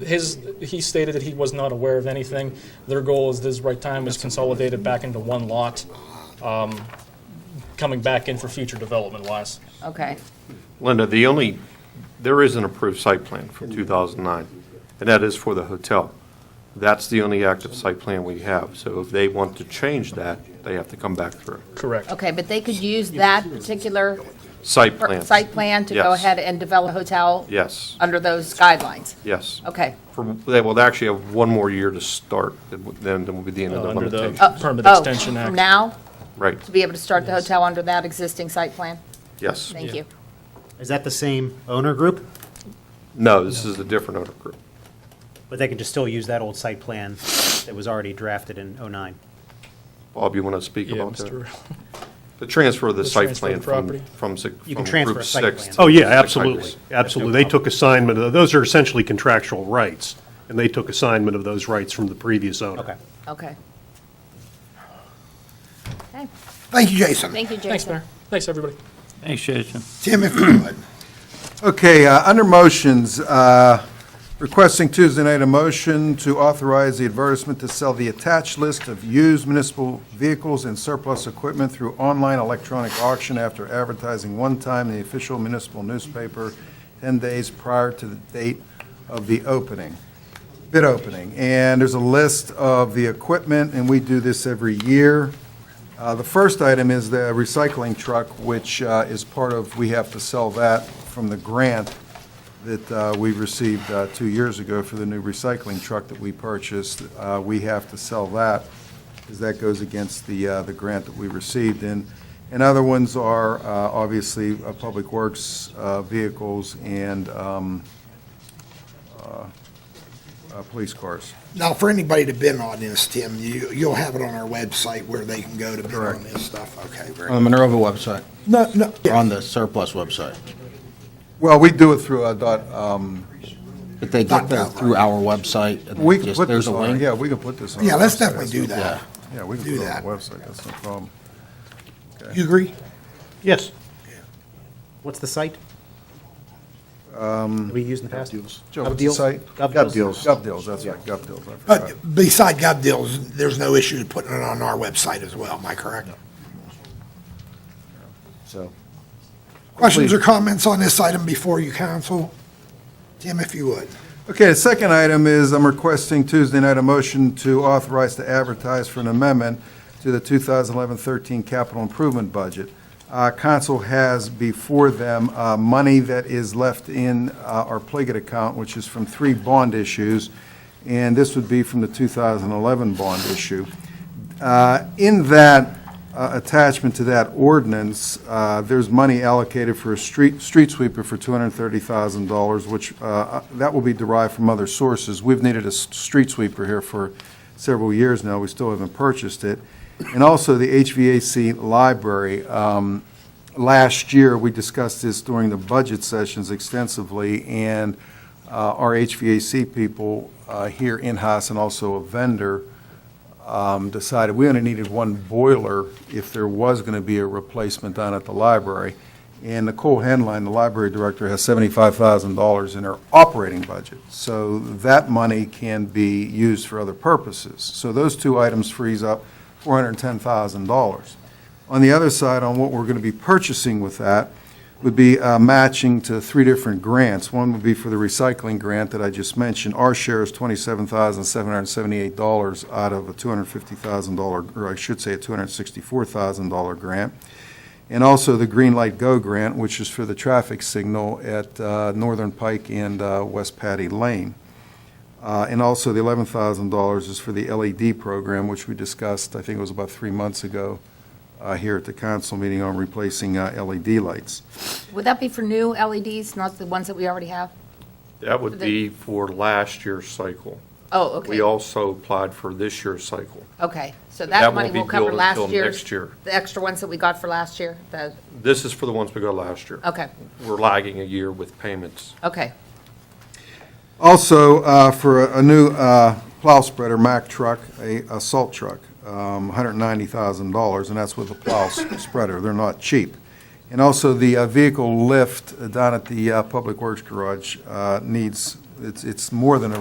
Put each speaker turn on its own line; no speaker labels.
his, he stated that he was not aware of anything. Their goal is this right time is consolidated back into one lot, um, coming back in for future development wise.
Okay,
Linda, the only, there is an approved site plan from 2009, and that is for the hotel. That's the only active site plan we have, so if they want to change that, they have to come back through.
Correct.
okay, but they could use that particular
Site
per-
plan.
site plan to go
Yes.
ahead and develop a hotel?
Yes,
Under those guidelines?
yes.
Okay.
For- They will actually have one more year to start, then then will be the end of the
Uh, under the-
limitation.
Uh,
Permit
oh,
Extension Act.
From now,
Right,
to be able to start the hotel under that existing site plan?
yes.
Thank you.
Is that the same owner group?
No, this is a different owner group.
But they can just still use that old site plan that was already drafted in '09?
Bob, you want to speak
Yeah,
about that?
Mr.
The transfer of the
The
site
transfer
plan
of
from,
property.
from si-
You
from
can transfer
Group
a site
6.
plan.
to
Oh, yeah,
Six Hundred.
absolutely, absolutely. They took assignment, of those are essentially contractual rights, and they took assignment of those rights from the previous owner.
Okay.
Okay. Okay,
Thank you, Jason.
thank you,
Thanks,
Jason.
Mayor. Thanks, everybody.
Thanks, Jason.
Tim, if you would.
Okay, uh, under motions, uh, requesting Tuesday night a motion to authorize the advertisement to sell the attached list of used municipal vehicles and surplus equipment through online electronic auction after advertising one time in the official municipal newspaper 10 days prior to the date of the opening, bid opening. And there's a list of the equipment, and we do this every year. Uh, The first item is the recycling truck, which uh, is part of, we have to sell that from the grant that uh, we received uh, two years ago for the new recycling truck that we purchased. Uh, We have to sell that, because that goes against the, uh, the grant that we received. And, and other ones are, uh, obviously, uh, Public Works uh, vehicles and um, uh, uh, police cars.
Now, for anybody to bid on this, Tim, you, you'll have it on our website where they can go to bid on this stuff. Okay, very.
On the Minerva website,
No, no,
or
yeah,
on the surplus website.
Well, we do it through uh, dot, um,
But they get that through our website. and
we can
just-
put
there's
this
a
on,
link.
yeah, we can put this on.
yeah,
our
let's
website.
definitely
That's
do
no problem.
that.
Yeah, we can
Do
put it on
that.
the website, that's no problem.
You agree?
Yes. What's the site? Um. We used in the past?
Joe,
Gov
what's the
Deals?
site?
Gov
Gov
Deals.
Gov deals, that's right, gov deals, I forgot.
But Uh, beside gov deals, there's no issue with putting it on our website as well, am I correct?
So,
Questions or comments on this item before you counsel? Tim, if you would.
Okay, the second item is I'm requesting Tuesday night a motion to authorize to advertise for an amendment to the 2011-13 capital improvement budget. Uh, Council has before them uh, money that is left in uh, our Pliget account, which is from three bond issues, and this would be from the 2011 bond issue. Uh, In that uh, attachment to that ordinance, uh, there's money allocated for a street, street sweeper for $230,000, which, uh, that will be derived from other sources. We've needed a s- street sweeper here for several years now, we still haven't purchased it. And also the HVAC library. Um, Last year, we discussed this during the budget sessions extensively, and uh, our HVAC people uh, here in-house and also a vendor um, decided we only needed one boiler if there was going to be a replacement down at the library. And Nicole Henline, the library director, has $75,000 in her operating budget. So that money can be used for other purposes. So those two items frees up $410,000. On the other side, on what we're going to be purchasing with that, would be uh, matching to three different grants. One would be for the recycling grant that I just mentioned. Our share is $27,778 out of a $250,000, or I should say a $264,000 grant. And also the Green Light Go grant, which is for the traffic signal at uh, Northern Pike and uh, West Patty Lane. Uh, And also the $11,000 is for the LED program, which we discussed, I think it was about three months ago, uh, here at the council meeting on replacing uh, LED lights.
Would that be for new LEDs, not the ones that we already have?
That would
The-
be for last year's cycle.
Oh,
We
okay,
also applied for this year's cycle.
okay. So
that
that
won't
money
be
will cover
billed
last
until
year's.
next year.
The extra ones that we got for last year, the,
This is for the ones we got last year.
okay,
We're lagging a year with payments.
okay.
Also, uh, for a a new uh, plow spreader, Mack truck, a a salt truck, um, $190,000, and that's with a plow s- spreader. They're not cheap. And also, the uh, vehicle lift down at the uh, Public Works Garage uh, needs, it's it's more than a